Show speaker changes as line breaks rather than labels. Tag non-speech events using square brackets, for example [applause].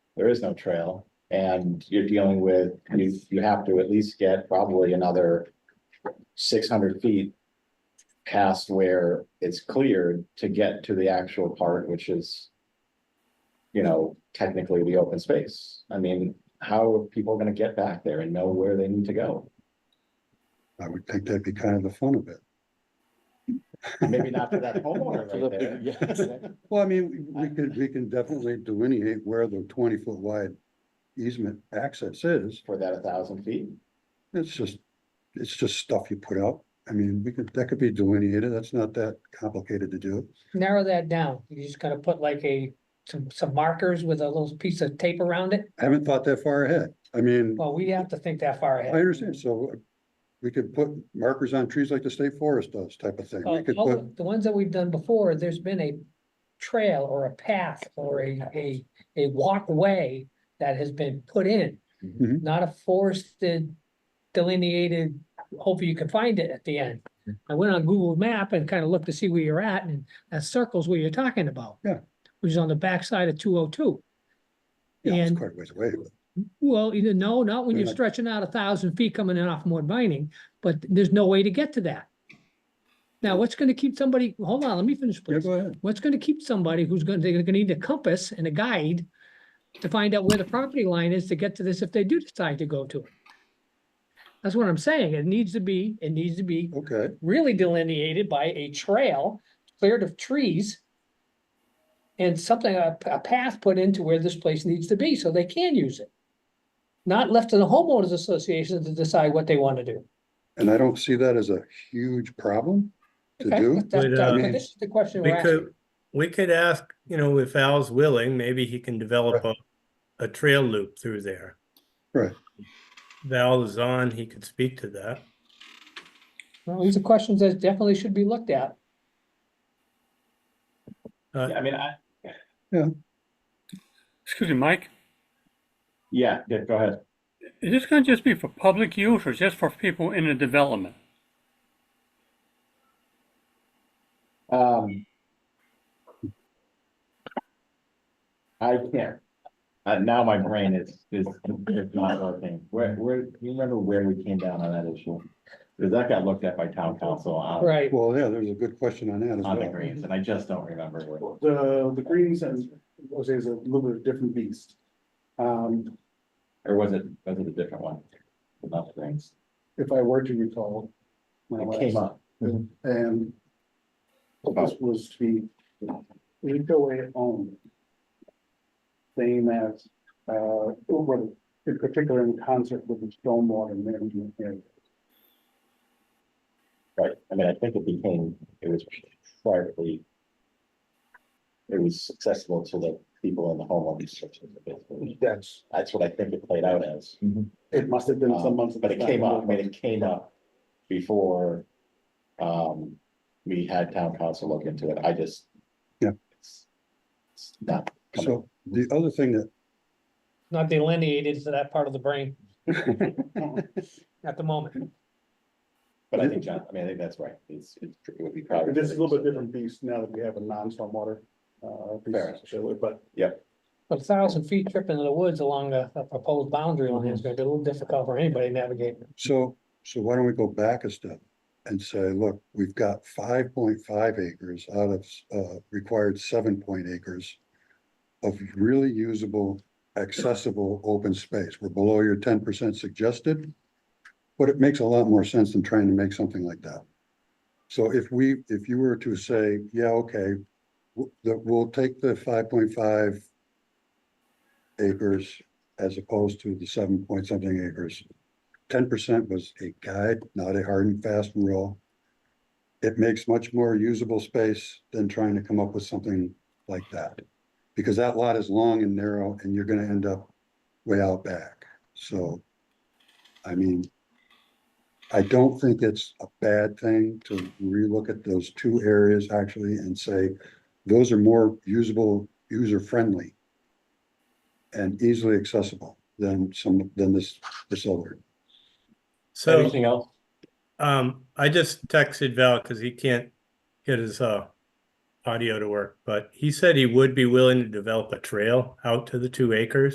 there is no trail. And you're dealing with, you, you have to at least get probably another six hundred feet past where it's cleared to get to the actual part, which is, you know, technically the open space. I mean, how are people gonna get back there and know where they need to go?
I would think that'd be kind of the fun of it.
Maybe not to that homeowner
To the
right there.
Well, I mean, we could, we can definitely delineate where the twenty foot wide easement access is.
For that a thousand feet,
It's just, it's just stuff you put out. I mean, we could, that could be delineated. That's not that complicated to do.
narrow that down. You just gotta put like a, some, some markers with a little piece of tape around it.
I haven't thought that far ahead. I mean,
Well, we have to think that far
I
ahead.
understand. So uh, we could put markers on trees like the state forest does type of thing.
Uh,
We could
all
put,
the- The ones that we've done before, there's been a trail or a path or a, a, a walkway that has been put in.
Mhm.
Not a forested delineated, hopefully you can find it at the end. I went on Google Map and kind of looked to see where you're at and that circles where you're talking about.
Yeah.
Which is on the backside of two oh two.
yeah, it's
and-
quite a ways away. but-
Well, either no, not when
They're
you're
not-
stretching out a thousand feet coming in off more Mining, but there's no way to get to that. Now, what's gonna keep somebody, hold on, let me finish,
Yeah,
please.
go ahead.
What's gonna keep somebody who's gonna, they're gonna need a compass and a guide to find out where the property line is to get to this if they do decide to go to it? That's what I'm saying. It needs to be, it needs to be
Okay.
really delineated by a trail cleared of trees. And something, a, a path put into where this place needs to be, so they can use it. Not left to the homeowners association to decide what they want to do.
And I don't see that as a huge problem to
Okay,
do.
but that-
Wait,
that-
uh,
but This is the question
We
we're asking.
could, we could ask, you know, if Al's willing, maybe he can develop a, a trail loop through there.
Right.
Val is on, he could speak to that.
Well, These are questions that definitely should be looked at.
Yeah, I mean, I,
Excuse me, Mike,
yeah, yeah, go ahead.
is this gonna just be for public use or just for people in the development?
Um. I can't, uh, now my brain is, is, is not working. Where, where, do you remember where we came down on that issue? Cause that got looked at by town council on,
Right.
Well, yeah, there's a good question on that as
on the
well.
greens, and I just don't remember where.
The, the greens and Jose is a little bit of a different beast. Um,
Or was it, was it a different one? Not the greens.
if I were to recall. my
It came
last-
up.
And this was to be HOA owned. Saying that, uh, over, in particular in concert with the stormwater management area.
Right, I mean, I think it became, it was privately. It was accessible to the people in the homeowners association, basically.
That's,
That's what I think it played out as.
it must have been some months.
Um, But it came up, I mean, it came up before, um, we had town council look into it, I just.
Yeah.
It's it's not coming,
So the other thing that,
Not delineated to that part of
[laughs]
the brain at the moment.
but I think, John, I mean, I think that's right, it's, it's, it would be probably.
This is a little bit different beast now that we have a non-stormwater, uh,
Fair
beast,
enough.
so, but
A thousand feet trip into the woods along a, a proposed boundary line is gonna be a little difficult for anybody navigating.
so, so why don't we go back a step and say, look, we've got five point five acres out of, uh, required seven point acres of really usable, accessible open space. We're below your ten percent suggested. But it makes a lot more sense than trying to make something like that. So if we, if you were to say, yeah, okay, w- the- we'll take the five point five acres as opposed to the seven point something acres. Ten percent was a guide, not a hard and fast rule. It makes much more usable space than trying to come up with something like that. Because that lot is long and narrow and you're gonna end up way out back. So, I mean, I don't think it's a bad thing to relook at those two areas actually and say, those are more usable, user-friendly and easily accessible than some, than this, this other.
So.
Anything else?
Um, I just texted Val because he can't get his uh audio to work, but he said he would be willing to develop a trail out to the two acres.